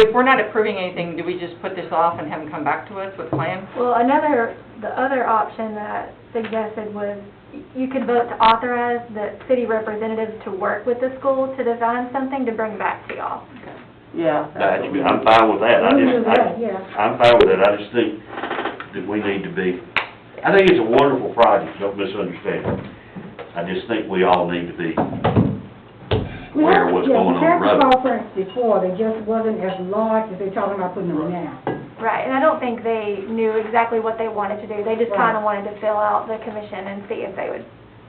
if we're not approving anything, do we just put this off and have them come back to us with plans? Well, another, the other option that suggested was you could vote to authorize the city representatives to work with the school to design something to bring back to y'all. Yeah. That's, I'm fine with that, I just, I, Yeah. I'm fine with it, I just think that we need to be, I think it's a wonderful project, don't misunderstand. I just think we all need to be aware of what's going on the Yeah, the tax road. conference before, they just wasn't as large as they're talking about putting them now. Right, and I don't think they knew exactly what they wanted to do. They just Right. kinda wanted to fill out the commission and see if they would,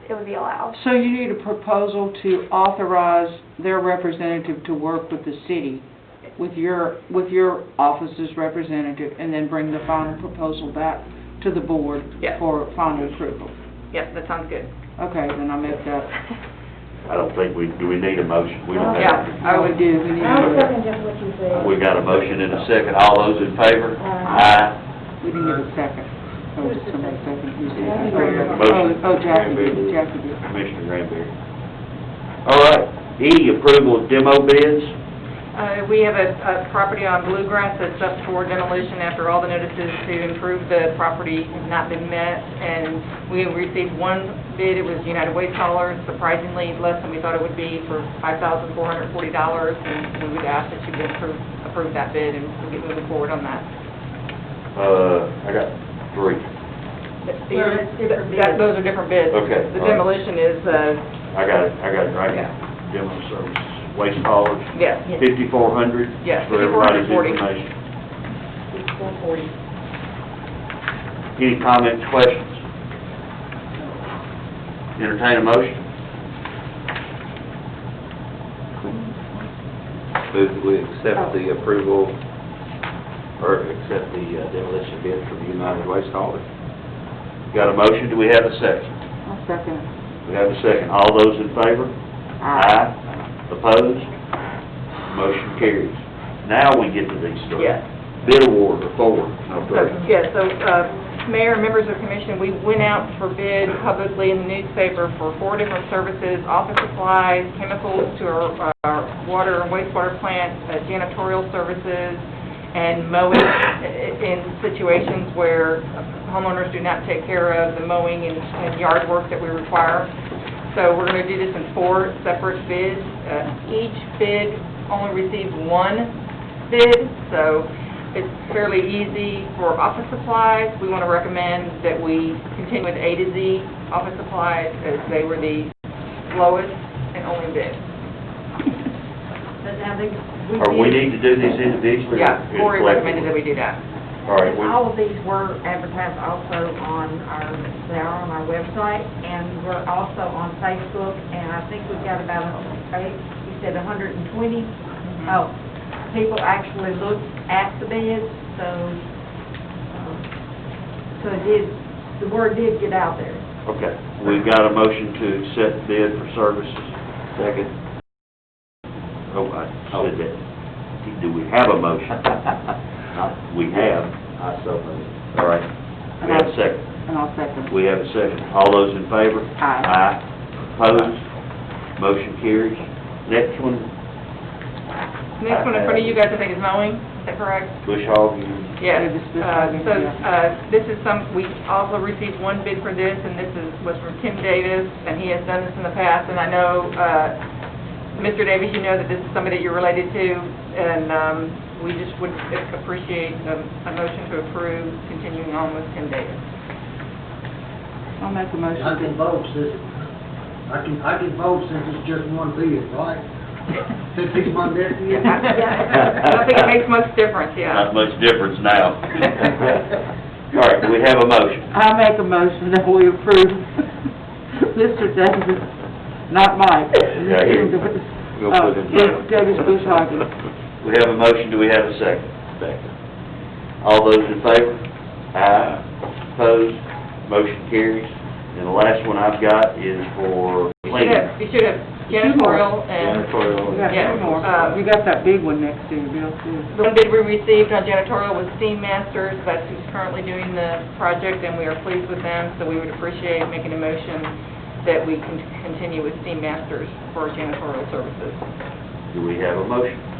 it would be allowed. So you need a proposal to authorize their representative to work with the city, with your, with your office's representative, and then bring the final proposal back to the board Yeah. for final approval. Yep, that sounds good. Okay, then I make that. I don't think we, do we need a motion? We don't Yeah, have, I would, do, we need I Oh. was a, thinking just what you said. we got a motion in a second, all those in favor? Aye. Aye. we didn't get a second. Oh, did somebody second, who seconded? Motion. Oh, oh, Jackie did, Jackie did. Commissioner Granberry. All right, E, approval of demo bids, uh, we have a, a property on Bluegrass that's up for demolition after all the notices to improve the property have not been met, and we received one bid, it was United Way Hauler, surprisingly less than we thought it would be for five thousand four hundred forty dollars, and we would ask that you would approve, approve that bid, and we'll get moving forward on that. uh, I got three, Well, it's different bids. Those are different bids. Okay, The all right. demolition is, uh, I got it, I got it right here. Demo services, waste haulers, yes, fifty-four hundred? Yes, For 5440. everybody's information. four forty. Any comments, questions? Entertain a motion? Move that we accept the Oh. approval, or accept the uh, demolition bid from United Waste Haulers. Got a motion, do we have a second? I'll second it. We have a second. All those in favor? Aye. Opposed? Motion carries. Now we get to these three. Yes. Bid award for four, no three. Yeah, so, uh, Mayor, members of commission, we went out for bid publicly in the newspaper for four different services, office supplies, chemicals to our, our water and wastewater plant, uh, janitorial services, and mowing i- i- in situations where homeowners do not take care of the mowing and- and yard work that we require. So we're going to do this in four separate bids. Uh, Each bid only received one bid, so it's fairly easy for office supplies. We want to recommend that we continue with A to Z office supplies, as they were the lowest and only bid. Or we need to do these individually? or Yeah, Cory recommended that collectively? we do that. All right, we- All of these were advertised also on our, they are on our website, and we're also on Facebook, and I think we've got about, eh, you said 120? Mm-hmm. Oh, people actually looked at the bids, so, um, so it did, the word did get out there. Okay, we've got a motion to accept bid for services. Second. Oh, I said that. Do we have a motion? I We have. so move. All right. We have a second. And I'll second. We have a second. All those in favor? Aye. Aye. Opposed? Motion carries. Next one, Next one in front of you guys, I think, is mowing, is that correct? Bush Hog, you- Yes, Yeah, this- this uh, one, so, yeah. uh, this is some, we also received one bid for this, and this is, was from Tim Davis, and he has done this in the past, and I know, uh, Mr. Davis, you know that this is somebody you're related to, and, um, we just would appreciate a, a motion to approve continuing on with Tim Davis. I'll make a motion. I can vote, sis. I can, I can vote since it's just one bid, right? Since it's my bid. Yeah, I I don't think it makes much difference, yeah. not much difference now. All right, do we have a motion? I make a motion that we approve Mr. Davis, not Mike. Yeah, here. We'll put it in. Uh, Davis Bushhagen. We have a motion, do we have a second? Second. All those in favor? Aye. Opposed? Motion carries. And the last one I've got is for You should cleaning. have, you should have janitorial and, We Janitorial. got Yeah, two more. uh, You got that big one next to you, Bill, too. the one bid we received on janitorial was Steam Masters, that's who's currently doing the project, and we are pleased with them, so we would appreciate making a motion that we can continue with Steam Masters for janitorial services. Do we have a motion?